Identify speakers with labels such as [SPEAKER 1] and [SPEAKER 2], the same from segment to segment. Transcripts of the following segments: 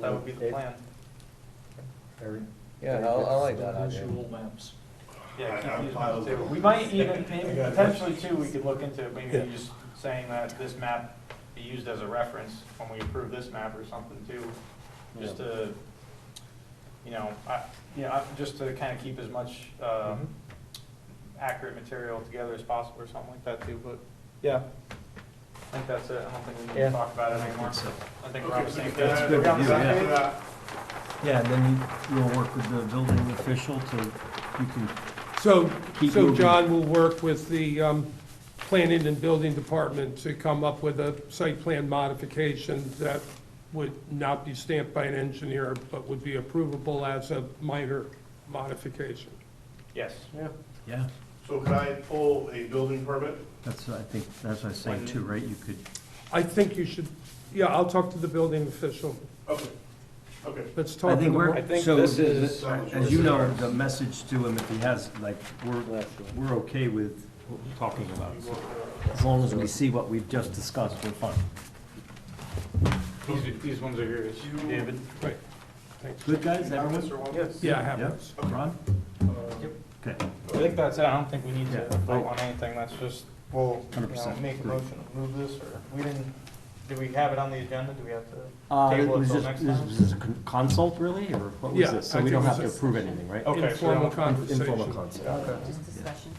[SPEAKER 1] That would be the
[SPEAKER 2] It-
[SPEAKER 1] plan.
[SPEAKER 2] Harry?
[SPEAKER 3] Yeah, I, I like that idea.
[SPEAKER 4] Visual maps.
[SPEAKER 1] Yeah,
[SPEAKER 5] I-
[SPEAKER 1] keep
[SPEAKER 5] I'm
[SPEAKER 1] these
[SPEAKER 5] fine
[SPEAKER 1] maps
[SPEAKER 5] with
[SPEAKER 1] there.
[SPEAKER 5] it.
[SPEAKER 1] We might even, maybe
[SPEAKER 5] I got it.
[SPEAKER 1] potentially too, we could look into maybe
[SPEAKER 2] Yeah.
[SPEAKER 1] just saying that this map be used as a reference when we approve this map or something too, just to, you know, I, you know, I- just to kind of keep as much,
[SPEAKER 5] Mm-hmm.
[SPEAKER 1] um, accurate material together as possible or something like that too, but yeah. I think that's it. I don't think we need
[SPEAKER 2] Yeah.
[SPEAKER 1] to talk about it anymore. I think we're on the same page.
[SPEAKER 5] That's
[SPEAKER 1] We're on the
[SPEAKER 6] good,
[SPEAKER 1] same
[SPEAKER 6] yeah.
[SPEAKER 1] page?
[SPEAKER 6] Yeah, and then you- you'll work with the building official to, you can,
[SPEAKER 7] So,
[SPEAKER 6] Keep
[SPEAKER 7] so
[SPEAKER 6] moving.
[SPEAKER 7] John will work with the um, planning and building department to come up with a site plan modification that would not be stamped by an engineer, but would be approvable as a minor modification.
[SPEAKER 1] Yes.
[SPEAKER 6] yeah,
[SPEAKER 5] So could I pull a building permit?
[SPEAKER 6] that's, I think, that's what I was saying too, right? You could,
[SPEAKER 7] I think you should, yeah, I'll talk to the building official.
[SPEAKER 5] Okay, okay.
[SPEAKER 7] Let's talk.
[SPEAKER 6] I
[SPEAKER 7] in
[SPEAKER 6] think
[SPEAKER 7] the
[SPEAKER 6] we're,
[SPEAKER 7] mor-
[SPEAKER 2] think
[SPEAKER 6] so,
[SPEAKER 2] this
[SPEAKER 6] the-
[SPEAKER 2] is-
[SPEAKER 6] the- as you know, the message to him, if he has, like, we're,
[SPEAKER 2] Left.
[SPEAKER 6] we're okay with what we're talking about. As long as we see what we've just discussed, we're fine.
[SPEAKER 1] These, these ones are yours.
[SPEAKER 5] You-
[SPEAKER 1] David?
[SPEAKER 7] Right, thanks.
[SPEAKER 6] Good, guys,
[SPEAKER 5] Have
[SPEAKER 6] everyone?
[SPEAKER 5] this or one?
[SPEAKER 1] Yes.
[SPEAKER 7] Yeah, I have
[SPEAKER 6] Yeah,
[SPEAKER 7] those.
[SPEAKER 6] Ron?
[SPEAKER 5] Yep.
[SPEAKER 6] Okay,
[SPEAKER 1] I think that's it, I don't think we need to
[SPEAKER 6] Yeah.
[SPEAKER 1] vote on anything, that's just, we'll, you know,
[SPEAKER 6] 100%.
[SPEAKER 1] make a motion, to move this, or, we didn't, did we have it on the agenda, do we have to?
[SPEAKER 6] uh,
[SPEAKER 1] Table it
[SPEAKER 6] was
[SPEAKER 1] till
[SPEAKER 6] this,
[SPEAKER 1] next
[SPEAKER 6] this
[SPEAKER 1] time?
[SPEAKER 6] was this a con- consult really, or what was
[SPEAKER 7] Yeah,
[SPEAKER 6] this? So
[SPEAKER 7] I
[SPEAKER 6] we
[SPEAKER 7] think
[SPEAKER 6] don't
[SPEAKER 7] it was
[SPEAKER 6] have to
[SPEAKER 7] a-
[SPEAKER 6] approve anything, right?
[SPEAKER 1] Okay, so
[SPEAKER 7] Informal
[SPEAKER 1] don't-
[SPEAKER 6] Informal
[SPEAKER 7] conversation.
[SPEAKER 6] consult.
[SPEAKER 8] Just discussion.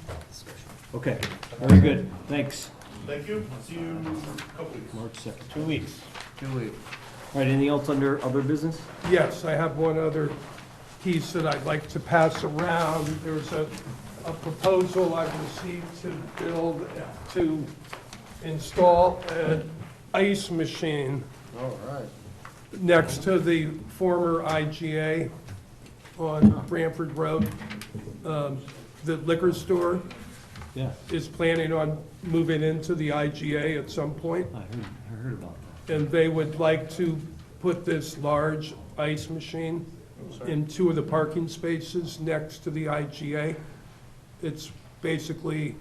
[SPEAKER 6] Okay, very good, thanks,
[SPEAKER 5] Thank you, see you in a couple weeks.
[SPEAKER 6] March second.
[SPEAKER 1] Two weeks.
[SPEAKER 6] All right, anything else under other business?
[SPEAKER 7] Yes, I have one other piece that I'd like to pass around. There's a, a proposal I've received to build, to install an ice machine
[SPEAKER 2] All right.
[SPEAKER 7] next to the former IGA on Branford Road. Um, The liquor store
[SPEAKER 6] Yeah,
[SPEAKER 7] is planning on moving into the IGA at some point,
[SPEAKER 6] I heard, I heard about
[SPEAKER 7] and they would like to put this large ice machine in two of the parking spaces next to the IGA. It's basically,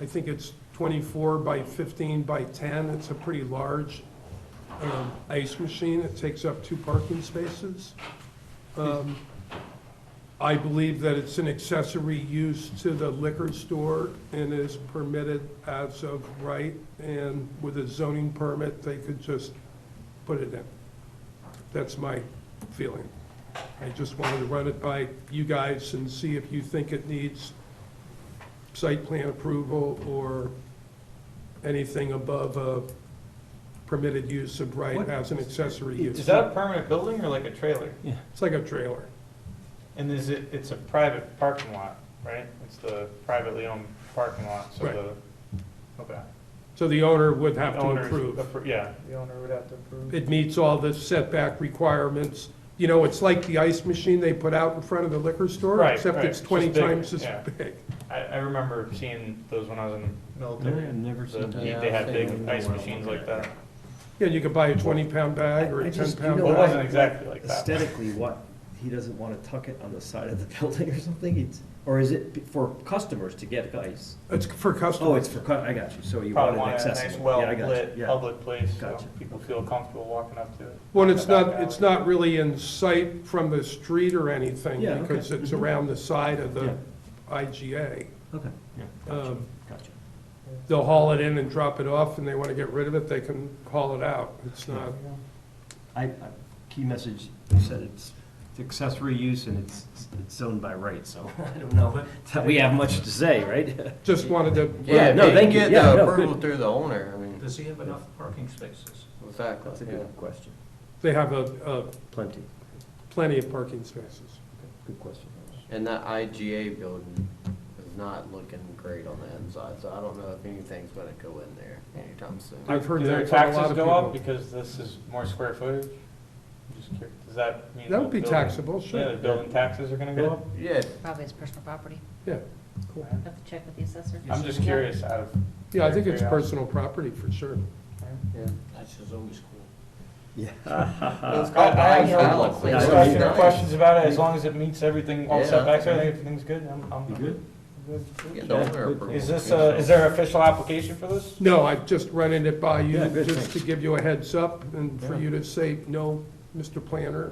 [SPEAKER 7] I think it's 24 by 15 by 10. It's a pretty large um, ice machine. It takes up two parking spaces. Um, I believe that it's an accessory use to the liquor store and is permitted as of right. And with a zoning permit, they could just put it in. That's my feeling. I just wanted to run it by you guys and see if you think it needs site plan approval or anything above a permitted use of right
[SPEAKER 6] What-
[SPEAKER 7] as an accessory
[SPEAKER 1] Is
[SPEAKER 7] use.
[SPEAKER 1] that a permanent building or like a trailer?
[SPEAKER 7] It's like a trailer.
[SPEAKER 1] And is it, it's a private parking lot, right? It's the privately owned parking lot, so
[SPEAKER 7] Right.
[SPEAKER 1] the, okay.
[SPEAKER 7] So the owner would have
[SPEAKER 1] The
[SPEAKER 7] to
[SPEAKER 1] owner's
[SPEAKER 7] approve.
[SPEAKER 1] appro- Yeah, the owner would have to approve.
[SPEAKER 7] It meets all the setback requirements. You know, it's like the ice machine they put out in front of the liquor store,
[SPEAKER 1] Right,
[SPEAKER 7] except
[SPEAKER 1] right,
[SPEAKER 7] it's
[SPEAKER 1] just
[SPEAKER 7] 20
[SPEAKER 1] bigger,
[SPEAKER 7] times as
[SPEAKER 1] yeah.
[SPEAKER 7] big.
[SPEAKER 1] I, I remember seeing those when I was in the
[SPEAKER 6] that.
[SPEAKER 1] military.
[SPEAKER 6] never
[SPEAKER 1] The-
[SPEAKER 6] that.
[SPEAKER 2] Yeah,
[SPEAKER 1] They had
[SPEAKER 2] I've
[SPEAKER 1] big
[SPEAKER 2] seen
[SPEAKER 1] ice
[SPEAKER 2] them.
[SPEAKER 1] machines like that.
[SPEAKER 7] Yeah, you could buy a 20-pound bag or
[SPEAKER 6] I-
[SPEAKER 7] a
[SPEAKER 6] I just-
[SPEAKER 7] 10-pound
[SPEAKER 6] you
[SPEAKER 1] Well,
[SPEAKER 6] know
[SPEAKER 1] it
[SPEAKER 7] bag.
[SPEAKER 1] wasn't exactly like that.
[SPEAKER 6] Aesthetically, what, he doesn't want to tuck it on the side of the building or something? It's, or is it for customers to get ice?
[SPEAKER 7] It's for customers.
[SPEAKER 6] Oh, it's for, cu- I got you, so you want
[SPEAKER 1] Probably
[SPEAKER 6] it
[SPEAKER 1] want a nice,
[SPEAKER 6] accessible. Yeah, I got you.
[SPEAKER 1] well-lit,
[SPEAKER 6] Yeah.
[SPEAKER 1] public place, so
[SPEAKER 6] Gotcha.
[SPEAKER 1] people feel comfortable walking up to it.
[SPEAKER 7] Well, it's
[SPEAKER 1] Back
[SPEAKER 7] not, it's
[SPEAKER 1] alley.
[SPEAKER 7] not really in sight from the street or anything,
[SPEAKER 6] Yeah, okay. Mm-hmm.
[SPEAKER 7] because it's around the side of
[SPEAKER 6] Yeah.
[SPEAKER 7] the IGA.
[SPEAKER 6] Okay, yeah, gotcha,
[SPEAKER 7] Um,
[SPEAKER 6] gotcha.
[SPEAKER 7] They'll haul it in and drop it off, and they want to get rid of it, they can haul it out. It's not,
[SPEAKER 6] I, I, key message, you said it's it's accessory use and it's, it's zoned by right, so I don't know that we have much to say, right?
[SPEAKER 7] just wanted to.
[SPEAKER 2] Yeah,
[SPEAKER 6] no,
[SPEAKER 2] no, they
[SPEAKER 6] thank you.
[SPEAKER 2] get
[SPEAKER 6] Yeah,
[SPEAKER 2] the
[SPEAKER 6] no, good.
[SPEAKER 2] approval through the owner, I mean,
[SPEAKER 4] Does he have enough parking spaces?
[SPEAKER 2] exactly,
[SPEAKER 6] That's a
[SPEAKER 2] yeah.
[SPEAKER 6] good question,
[SPEAKER 7] They have a, a
[SPEAKER 6] plenty,
[SPEAKER 7] plenty of parking spaces.
[SPEAKER 6] good question.
[SPEAKER 2] And that IGA building is not looking great on the inside, so I don't know if anything's gonna go in there anytime soon.
[SPEAKER 7] I've heard
[SPEAKER 1] Do their
[SPEAKER 7] that from a lot
[SPEAKER 1] taxes
[SPEAKER 7] of
[SPEAKER 1] go up
[SPEAKER 7] people.
[SPEAKER 1] because this is more square footage? I'm Just curious, does that mean?
[SPEAKER 7] That
[SPEAKER 1] the
[SPEAKER 7] would be
[SPEAKER 1] building-
[SPEAKER 7] taxable,
[SPEAKER 1] Yeah, the
[SPEAKER 7] sure.
[SPEAKER 1] building taxes are gonna go up?
[SPEAKER 2] Yeah,
[SPEAKER 8] Probably his personal property.
[SPEAKER 7] Yeah,
[SPEAKER 8] Have to check with the assessor.
[SPEAKER 1] I'm just curious out of.
[SPEAKER 7] yeah, I think it's
[SPEAKER 1] Yeah.
[SPEAKER 7] personal property for sure.
[SPEAKER 2] yeah.
[SPEAKER 4] That's just always cool.
[SPEAKER 6] Yeah.
[SPEAKER 2] It's
[SPEAKER 1] Uh, I-
[SPEAKER 2] called
[SPEAKER 1] I have
[SPEAKER 2] Ice
[SPEAKER 1] no-
[SPEAKER 2] Palace.
[SPEAKER 6] Yeah,
[SPEAKER 2] It's
[SPEAKER 6] I
[SPEAKER 2] gonna be
[SPEAKER 1] Discussion or
[SPEAKER 2] nice.
[SPEAKER 1] questions about it, as long as it meets everything, all
[SPEAKER 2] Yeah.
[SPEAKER 1] setbacks, I think everything's good, I'm, I'm.
[SPEAKER 6] You good?
[SPEAKER 2] Get
[SPEAKER 6] Yeah,
[SPEAKER 2] the owner
[SPEAKER 6] good.
[SPEAKER 2] approval.
[SPEAKER 1] Is this, uh, is there an official application for this?
[SPEAKER 7] No, I'm just running it by you,
[SPEAKER 6] Yeah, good,
[SPEAKER 7] just to
[SPEAKER 6] thanks.
[SPEAKER 7] give you a heads up and for
[SPEAKER 1] Yeah.
[SPEAKER 7] you to say, no, Mr. Planner